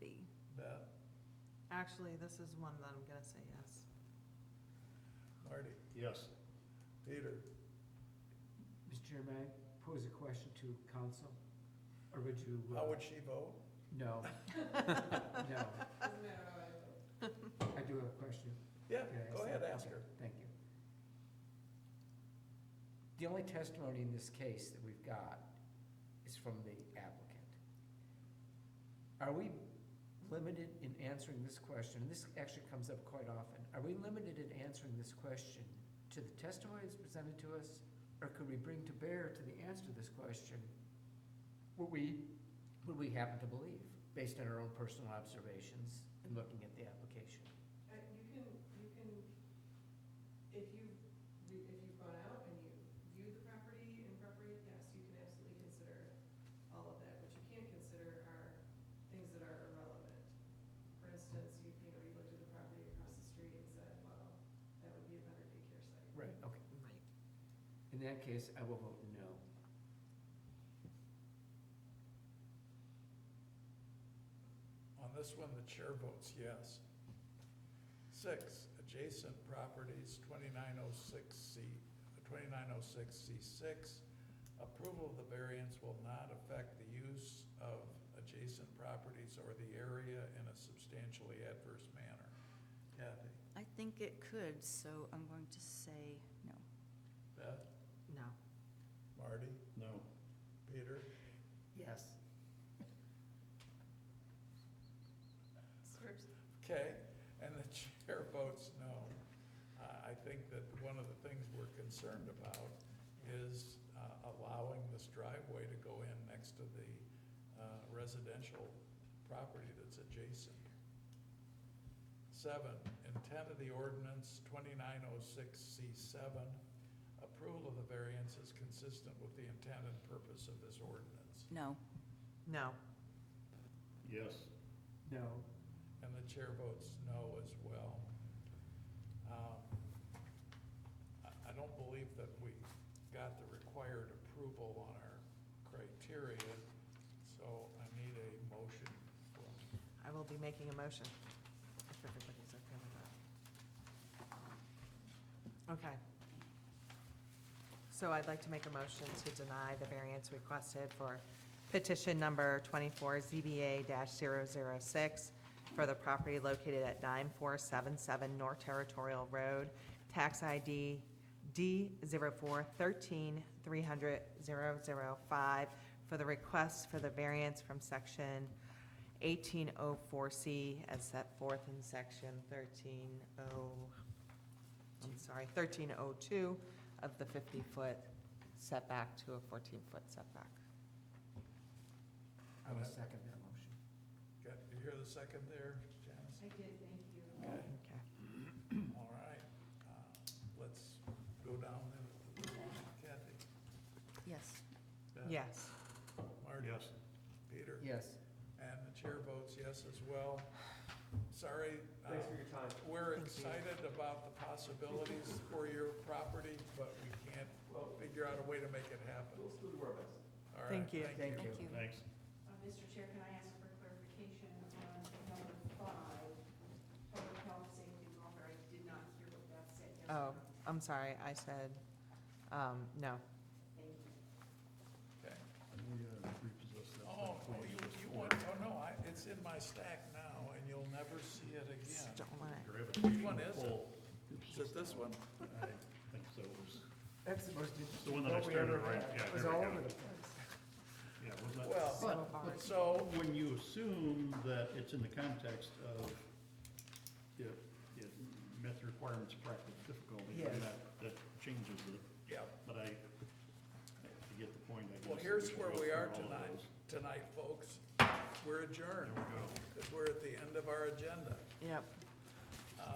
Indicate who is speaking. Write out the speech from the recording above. Speaker 1: actually, this is one that I'm gonna say yes.
Speaker 2: Marty,
Speaker 3: Yes.
Speaker 2: Peter,
Speaker 4: Mr. Chairman, I pose a question to council, or would you? uh,
Speaker 2: how would she vote?
Speaker 4: No. No, I do have a question.
Speaker 2: Yeah,
Speaker 4: Can I ask
Speaker 2: go ahead,
Speaker 4: that?
Speaker 2: ask
Speaker 4: Okay,
Speaker 2: her.
Speaker 4: Thank you. The only testimony in this case that we've got is from the applicant. Are we limited in answering this question, and this actually comes up quite often, are we limited in answering this question to the testimony that's presented to us, or could we bring to bear to the answer to this question what we, what we happen to believe, based on our own personal observations and looking at the application?
Speaker 5: Uh, You can, you can, if you, if you've gone out and you viewed the property in property, yes, you can absolutely consider all of that. What you can't consider are things that are irrelevant. For instance, you, you know, you looked at the property across the street and said, well, that would be a better daycare site.
Speaker 4: Right, okay. In that case, I will vote no.
Speaker 2: On this one, the chair votes yes. Six, adjacent properties, twenty-nine oh six C, twenty-nine oh six C six. Approval of the variance will not affect the use of adjacent properties or the area in a substantially adverse manner. Kathy,
Speaker 6: I think it could, so I'm going to say no.
Speaker 2: Beth,
Speaker 1: No.
Speaker 2: Marty,
Speaker 3: No.
Speaker 2: Peter?
Speaker 4: Yes.
Speaker 2: Okay, and the chair votes no. I, I think that one of the things we're concerned about is uh, allowing this driveway to go in next to the uh, residential property that's adjacent. Seven, intent of the ordinance twenty-nine oh six C seven, approval of the variance is consistent with the intent and purpose of this ordinance.
Speaker 6: No.
Speaker 1: No.
Speaker 3: Yes.
Speaker 4: No.
Speaker 2: And the chair votes no as well. Um, I I don't believe that we got the required approval on our criteria, so I need a motion from,
Speaker 1: I will be making a motion, if everybody's okay with that. Okay. So I'd like to make a motion to deny the variance requested for petition number twenty-four ZBA 6 for the property located at nine four seven seven North Territorial Road, tax ID D 4 13 300 005 for the request for the variance from section 1804C as set forth in section 13O, I'm sorry, 1302 of the 50-foot setback to a 14-foot setback.
Speaker 4: I will second that motion.
Speaker 2: got, you hear the second there, Janice?
Speaker 5: I did, thank you.
Speaker 2: Okay,
Speaker 1: Okay.
Speaker 2: all right. Uh, Let's go down then. Kathy?
Speaker 6: Yes.
Speaker 2: Beth,
Speaker 1: Yes.
Speaker 2: Marty?
Speaker 3: Yes.
Speaker 2: Peter?
Speaker 4: Yes.
Speaker 2: And the chair votes yes as well. Sorry. uh,
Speaker 7: Thanks for your time.
Speaker 2: We're
Speaker 1: Thank you.
Speaker 2: excited about the possibilities for your property, but we can't
Speaker 7: Well,
Speaker 2: figure out a way to make it happen.
Speaker 7: we'll still do our best.
Speaker 2: All right,
Speaker 1: Thank you.
Speaker 4: Thank you.
Speaker 6: Thank you.
Speaker 3: Thanks.
Speaker 8: Uh, Mr. Chair, can I ask for clarification on number five, public health, safety, and welfare? I did not hear what that said. Yes
Speaker 1: Oh,
Speaker 8: or no?
Speaker 1: I'm sorry, I said, um, no.
Speaker 8: Thank you.
Speaker 2: Okay.
Speaker 3: We uh, repossessed that.
Speaker 2: Oh,
Speaker 3: thing.
Speaker 2: you, you want, oh, no, I, it's in my stack now, and you'll never see it again.
Speaker 1: Stolen it.
Speaker 3: Gravitational
Speaker 2: Which one is it?
Speaker 3: pull. It's
Speaker 2: Is it this one?
Speaker 3: just- I think so. It was,
Speaker 4: That's the most
Speaker 3: The
Speaker 4: interesting.
Speaker 3: one that I
Speaker 4: vote we
Speaker 3: started,
Speaker 4: ever
Speaker 3: right?
Speaker 4: had.
Speaker 3: Yeah,
Speaker 4: It was
Speaker 3: there we
Speaker 4: all
Speaker 3: go.
Speaker 4: over the place.
Speaker 3: yeah, it was not.
Speaker 2: Well,
Speaker 1: So hard.
Speaker 2: so,
Speaker 3: When you assume that it's in the context of, it, it met the requirements of practical difficulty, then
Speaker 4: Yes.
Speaker 3: that, that changes it.
Speaker 2: yeah,
Speaker 3: But I, I get the point, I guess.
Speaker 2: well,
Speaker 3: that
Speaker 2: here's
Speaker 3: should
Speaker 2: where
Speaker 3: go
Speaker 2: we
Speaker 3: through
Speaker 2: are
Speaker 3: all of
Speaker 2: tonight,
Speaker 3: those.
Speaker 2: tonight, folks. We're adjourned,
Speaker 3: There we go.
Speaker 2: because we're at the end of our agenda.
Speaker 1: Yep.